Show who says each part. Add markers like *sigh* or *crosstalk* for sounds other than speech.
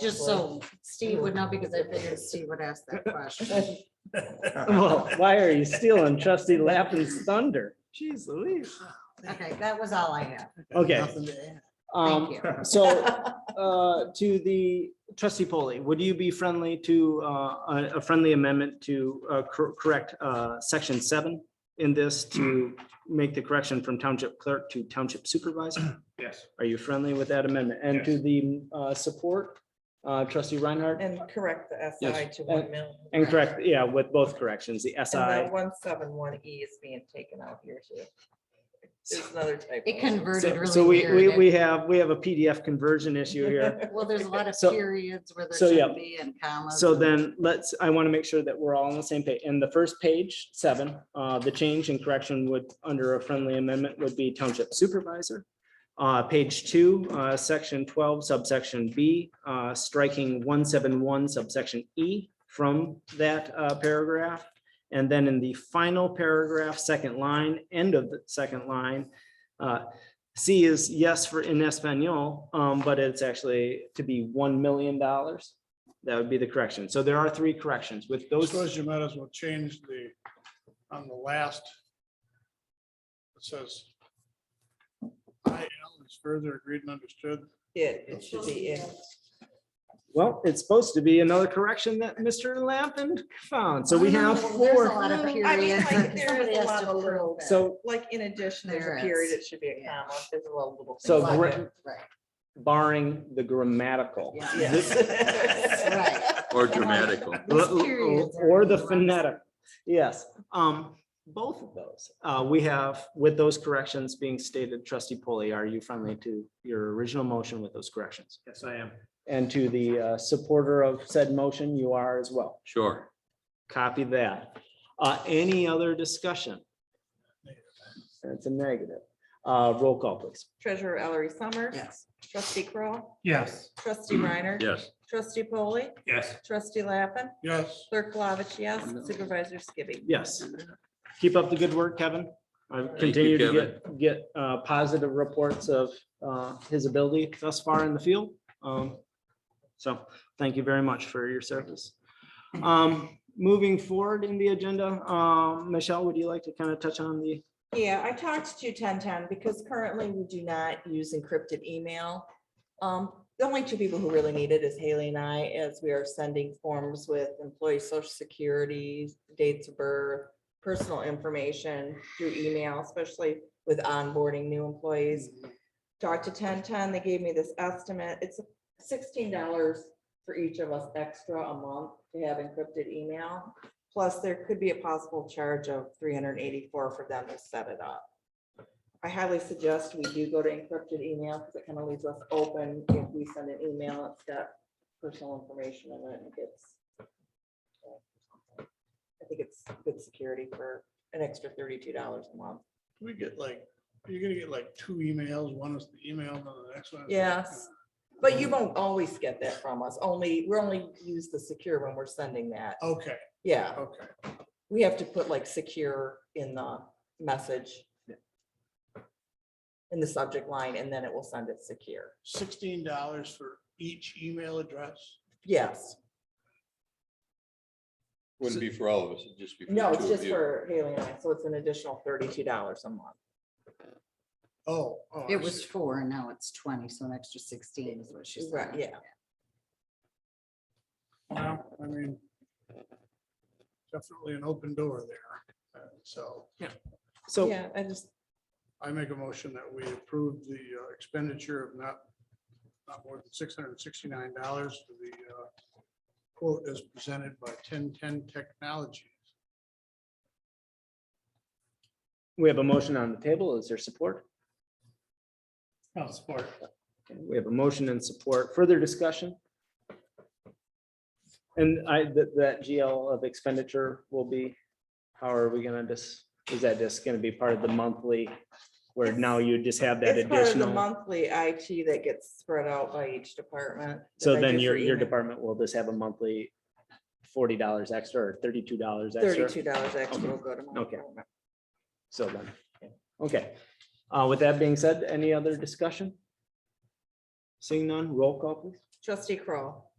Speaker 1: Just so Steve would know, because I figured Steve would ask
Speaker 2: *laughs*
Speaker 1: that question.
Speaker 3: Well, why are you stealing trustee Lappin's thunder? Jeez Louise.
Speaker 1: Okay, that was all I have.
Speaker 3: Okay,
Speaker 1: Thank
Speaker 3: *laughs* um,
Speaker 1: you.
Speaker 3: so, uh, to the trustee polley would you be friendly to, uh, a- a friendly amendment to, uh, cor- correct, uh, section seven? In this to make the correction from township clerk to township supervisor?
Speaker 4: Yes.
Speaker 3: Are you friendly with that amendment? And to
Speaker 4: Yes.
Speaker 3: the, uh, support, uh, trustee Reinhardt?
Speaker 2: And correct the SI to one million.
Speaker 3: And
Speaker 2: *laughs*
Speaker 3: correct, yeah, with both corrections, the
Speaker 2: And
Speaker 3: SI.
Speaker 2: one seven one E is being taken out here too. There's another typo.
Speaker 1: It converted
Speaker 3: So
Speaker 1: really
Speaker 3: so we, we,
Speaker 1: weird.
Speaker 3: we have, we have a PDF
Speaker 1: *laughs*
Speaker 3: conversion issue here.
Speaker 1: Well, there's a lot of
Speaker 3: So-
Speaker 1: periods where there
Speaker 3: so, yeah.
Speaker 1: shouldn't be and commas.
Speaker 3: So
Speaker 1: and-
Speaker 3: then let's, I want to make sure that we're all on the same page. In the first page, seven, uh, the change and correction would, under a friendly amendment would be township supervisor. Uh, page two, uh, section twelve subsection B, uh, striking one seven one subsection E from that, uh, paragraph. And then in the final paragraph, second line, end of the second line, uh, C is yes for in Espanol, um, but it's actually to be one million dollars. That would be the correction. So there are three corrections with
Speaker 4: I
Speaker 3: those.
Speaker 4: suppose you might as well change the, on the last. It says. I L is further agreed and understood.
Speaker 2: *laughs* It, it should be in.
Speaker 3: Well, it's supposed to be another correction that Mr. Lappin found. So we
Speaker 1: No,
Speaker 3: have
Speaker 1: well, there's a
Speaker 3: four.
Speaker 1: lot of
Speaker 2: I mean,
Speaker 1: periods.
Speaker 2: like,
Speaker 1: and
Speaker 2: there
Speaker 1: somebody
Speaker 2: is a
Speaker 1: has
Speaker 2: lot
Speaker 1: to
Speaker 2: of
Speaker 1: approve
Speaker 2: little-
Speaker 1: that.
Speaker 3: So
Speaker 2: Like in addition, there's
Speaker 1: There
Speaker 2: a
Speaker 1: is.
Speaker 2: period, it should be a
Speaker 1: Yeah.
Speaker 2: comma, there's a little. little
Speaker 3: So
Speaker 2: thing.
Speaker 3: gra-
Speaker 1: Right, right.
Speaker 3: barring the grammatical.
Speaker 1: Yeah.
Speaker 3: this-
Speaker 2: Yes.
Speaker 1: *laughs* Right.
Speaker 5: Or dramatical.
Speaker 1: Those periods are
Speaker 3: Or the
Speaker 1: really lots.
Speaker 3: phonetic, yes. Um, both of those, uh, we have, with those corrections being stated, trustee Polly, are you friendly to your original motion with those corrections?
Speaker 6: Yes, I am.
Speaker 3: And to the uh, supporter of said motion, you are as well.
Speaker 5: Sure.
Speaker 3: Copy that. Uh, any other discussion? That's a negative. Uh, roll call, please.
Speaker 2: Treasurer Ellery Summers.
Speaker 1: Yes.
Speaker 2: Trustee Kroll,
Speaker 6: Yes.
Speaker 2: trustee Reiner.
Speaker 5: Yes.
Speaker 2: Trustee Polly,
Speaker 6: Yes.
Speaker 2: trustee Lappin,
Speaker 4: Yes,
Speaker 2: clerk Flavich, yes, supervisor Skibby.
Speaker 3: Yes. Keep up the good work, Kevin. I continue to get, get, uh, positive reports of, uh, his ability thus far in the field. Um, so thank you very much for your service. Um, moving forward in the agenda, um, Michelle, would you like to kind of touch on the,
Speaker 2: Yeah, I talked to ten ten because currently we do not use encrypted email. Um, the only two people who really need it is Haley and I, as we are sending forms with employee social security, dates of birth, personal information through email, especially with onboarding new employees. Talked to ten ten, they gave me this estimate. It's sixteen dollars for each of us extra a month to have encrypted email. Plus, there could be a possible charge of three hundred and eighty-four for them to set it up. I highly suggest we do go to encrypted email because it kind of leaves us open if we send an email, it's got personal information in it and it gets. I think it's good security for an extra thirty-two dollars a month.
Speaker 4: we get like, you're gonna get like two emails, one is the email, and the next one. is the-
Speaker 2: Yes, but you won't always get that from us, only, we're only use the secure when we're sending that.
Speaker 4: Okay,
Speaker 2: Yeah,
Speaker 4: okay.
Speaker 2: we have to put like secure in the message. In the subject line and then it will send it secure.
Speaker 4: Sixteen dollars for each email address.
Speaker 2: Yes,
Speaker 5: Wouldn't be for all of us, it'd just be. for
Speaker 2: no,
Speaker 5: the
Speaker 2: it's
Speaker 5: two of
Speaker 2: just
Speaker 5: you.
Speaker 2: for Haley and I, so it's an additional thirty-two dollars a month.
Speaker 4: Oh. oh, I
Speaker 1: It was
Speaker 4: see.
Speaker 1: four, and now it's twenty, so an extra sixteen is what she said.
Speaker 2: Right, yeah.
Speaker 4: Well, I mean. Definitely an open door there. Uh, So
Speaker 3: so.
Speaker 2: Yeah, I just,
Speaker 4: I make a motion that we approve the uh, expenditure of not, not more than six hundred and sixty-nine dollars for the uh, quote as presented by ten-ten Technologies.
Speaker 3: We have a motion on the table. Is there support?
Speaker 6: I'll support.
Speaker 3: Okay, We have a motion and support. Further discussion? And I, that, that GL of expenditure will be, how are we gonna just, is that just gonna be part of the monthly? Where now you just have that
Speaker 2: it's part of the
Speaker 3: additional,
Speaker 2: monthly IT that gets spread out by each department.
Speaker 3: so
Speaker 2: that I do
Speaker 3: then
Speaker 2: for
Speaker 3: your, your
Speaker 2: email.
Speaker 3: department will just have a monthly forty dollars extra or thirty-two dollars extra?
Speaker 2: Thirty-two dollars extra will go to. my
Speaker 3: Okay.
Speaker 2: department.
Speaker 3: So then, okay. Uh, with that being said, any other discussion? Seeing none, roll call please.
Speaker 2: Trustee Kroll,